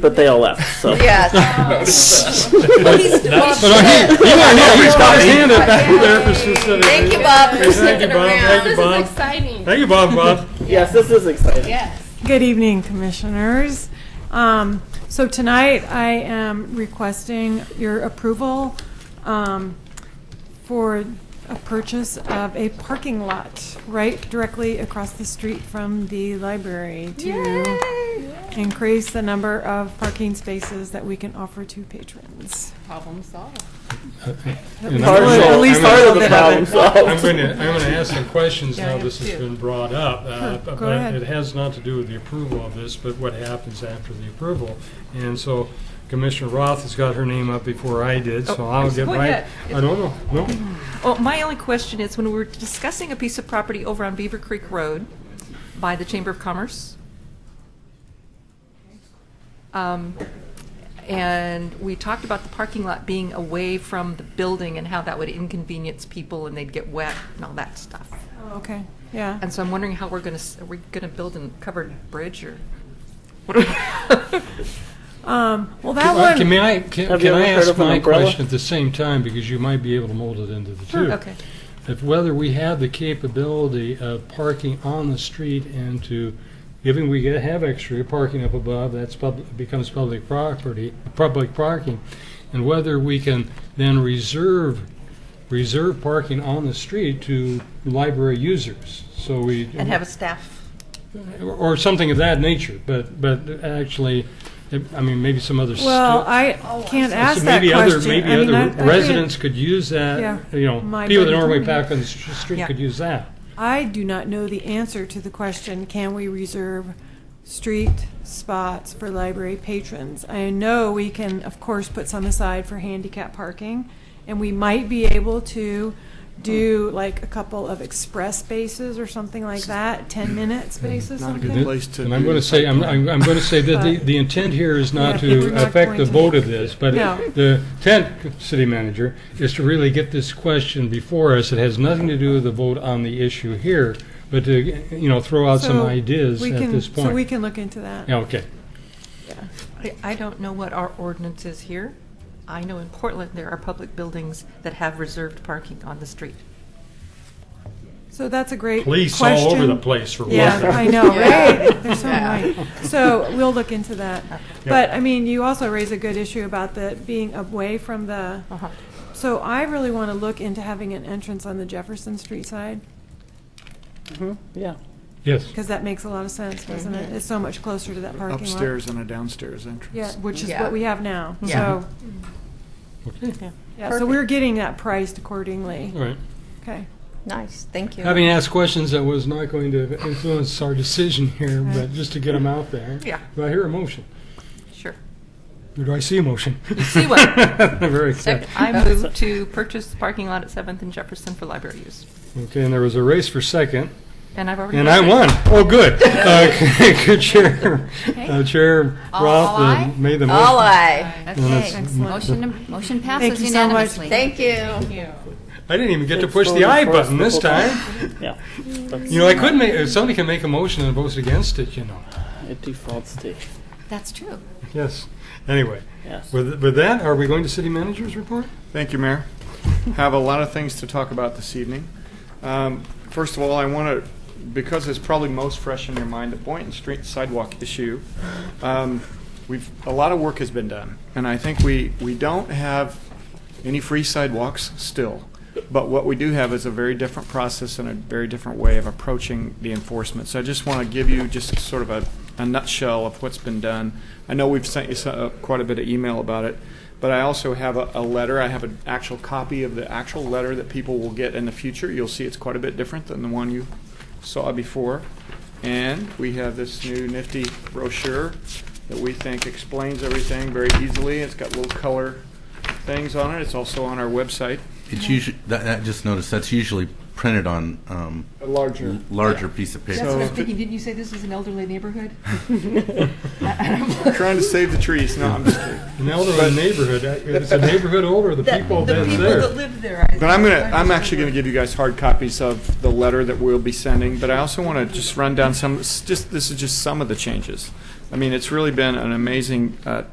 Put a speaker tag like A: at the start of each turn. A: but they all left. So
B: Yes.
C: But I- he, he went, he he's got his hand up back there for specific.
B: Thank you, Bob, for
C: Thank you,
B: sticking
C: Bob. Thank you,
B: around.
C: Bob.
D: exciting.
C: Thank you, Bob, Bob.
A: yes, this is exciting.
E: Good evening, Commissioners. Um, So tonight, I am requesting your approval um, for a purchase of a parking lot right directly across the street from the library to increase the number of parking spaces that we can offer to patrons.
D: Problem solved.
C: And
A: Part
C: I'm
A: of,
C: gonna-
A: at least
C: I'm
A: part
C: gonna-
A: of the problem
C: I'm
A: solved.
C: going to, I'm going to ask some questions
D: Yeah, I
C: now
D: am
C: this has
D: too.
C: been brought up. uh, but
E: go ahead.
C: It has not to do with the approval of this, but what happens after the approval. And so Commissioner Roth has got her name up before I did, so
F: Oh,
C: I'll
F: it's-
C: get
F: what
C: right.
F: yet?
C: I don't know, no.
F: Well, Oh, my only question is, when we were discussing a piece of property over on Beaver Creek Road by the Chamber of Commerce, um, and we talked about the parking lot being away from the building and how that would inconvenience people and they'd get wet and all that stuff.
E: Okay, yeah.
F: Oh. And so I'm wondering how we're going to, are we going to build a covered bridge or? what are we-
E: Um, Well, that
C: Uh, Can
E: one,
C: may I, can
A: Have you
C: can
A: ever
C: I
A: heard
C: ask
A: of an
C: my
A: umbrella?
C: question at the same time, because you might be able to mold it into the two?
F: Okay.
C: If whether we have the capability of parking on the street and to, given we get- have extra parking up above, that's public, becomes public property, public parking, and whether we can then reserve, reserve parking on the street to library users, so we.
F: And have a staff?
C: Or something of that nature, but, but actually, it- I mean, maybe some other.
E: well,
C: stu-
E: I can't
C: so
E: ask that
C: maybe other,
E: question.
C: maybe
E: I mean, I- I
C: other
E: can't-
C: residents could use
E: Yeah.
C: that, you know,
E: My
C: people that
E: buddy
C: normally
E: told me.
C: back on the s- street
F: Yeah.
C: could use that.
E: I do not know the answer to the question, can we reserve street spots for library patrons? I know we can, of course, put some aside for handicap parking, and we might be able to do like a couple of express spaces or something like that, 10-minute spaces, something.
G: place to.
C: And I'm going to say, I'm, I'm I'm going to say that the,
E: But-
C: the intent here is not
E: Yeah, we're
C: to
E: not
C: affect the
E: going to-
C: vote of this, but
E: No.
C: the intent, city manager, is to really get this question before us. It has nothing to do with the vote on the issue here, but to, you know, throw out some
E: So
C: ideas
E: we
C: at
E: can-
C: this
E: So we
C: point.
E: can look into that.
C: Yeah, okay.
F: I- I don't know what our ordinance is here. I know in Portland, there are public buildings that have reserved parking on the street.
E: So that's a great question.
C: Police all over the place for one
E: Yeah,
C: thing.
E: I know,
D: Yeah.
E: right? They're so
D: Yeah.
E: annoying. So we'll look into that. But, I mean, you also raise a good issue about the being away from the,
F: Uh-huh.
E: so I really want to look into having an entrance on the Jefferson Street side,
A: Mm-hmm. Yeah.
C: Yes.
E: because that makes a lot of sense, doesn't it? It's so much closer to that parking lot.
G: Upstairs and a downstairs entrance.
E: Yeah, which is
D: Yeah.
E: what we have now,
F: Yeah.
E: so,
F: Yeah.
E: yeah, so we're getting that priced accordingly.
C: All right.
E: Okay.
D: Nice, thank you.
C: Having asked questions that was not going to influence our decision here, but just to get them out there.
F: Yeah.
C: Do I hear a motion?
F: Sure.
C: Or do I see a motion?
F: see one.
C: Very excited.
F: I move to purchase the parking lot at 7th and Jefferson for library use.
C: Okay, and there was a race for second,
F: And I've already.
C: and I won. Oh, good. Uh, Good chair. uh, Chair Roth uh, made the
B: All
C: motion.
B: right.
C: And it's-
H: Motion, motion
E: Thank
H: passes
E: you so much.
H: unanimously.
B: Thank you.
C: I didn't even get to
A: It's
C: push the
A: voted
C: I
A: for
C: button
A: us
C: this
A: the whole
C: time.
A: Yeah. That's,
C: You know, I could make, uh, somebody can make a motion and vote against it, you know.
A: it defaults to.
H: That's true.
C: Yes. Anyway,
A: Yes.
C: with with that, are we going to city manager's report?
G: Thank you, Mayor. Have a lot of things to talk about this evening. Um, First of all, I want to, because it's probably most fresh in your mind, the Boynton Street sidewalk issue. um, We've, a lot of work has been done, and I think we, we don't have any free sidewalks still. But what we do have is a very different process and a very different way of approaching the enforcement. So I just want to give you just sort of a, a nutshell of what's been done. I know we've sent you so- uh, quite a bit of email about it, but I also have a, a letter. I have an actual copy of the actual letter that people will get in the future. You'll see it's quite a bit different than the one you saw before. And we have this new nifty brochure that we think explains everything very easily. It's got little color things on it. It's also on our website.
I: It's usually that, that just noticed that's usually printed on um,
G: A larger.
I: l- larger piece of
G: So-
I: paper.
G: what I'm thinking.
F: didn't you say this is an elderly neighborhood?
G: Trying to save the trees. No, I'm just kidding.
C: An elderly neighborhood, uh, it's a neighborhood older, the people that's there.
F: live there.
G: But I'm gonna, I'm actually gonna give you guys hard copies of the letter that we'll be sending, but I also wanna just run down some, s- just, this is just some of the changes. I mean, it's really been an amazing uh,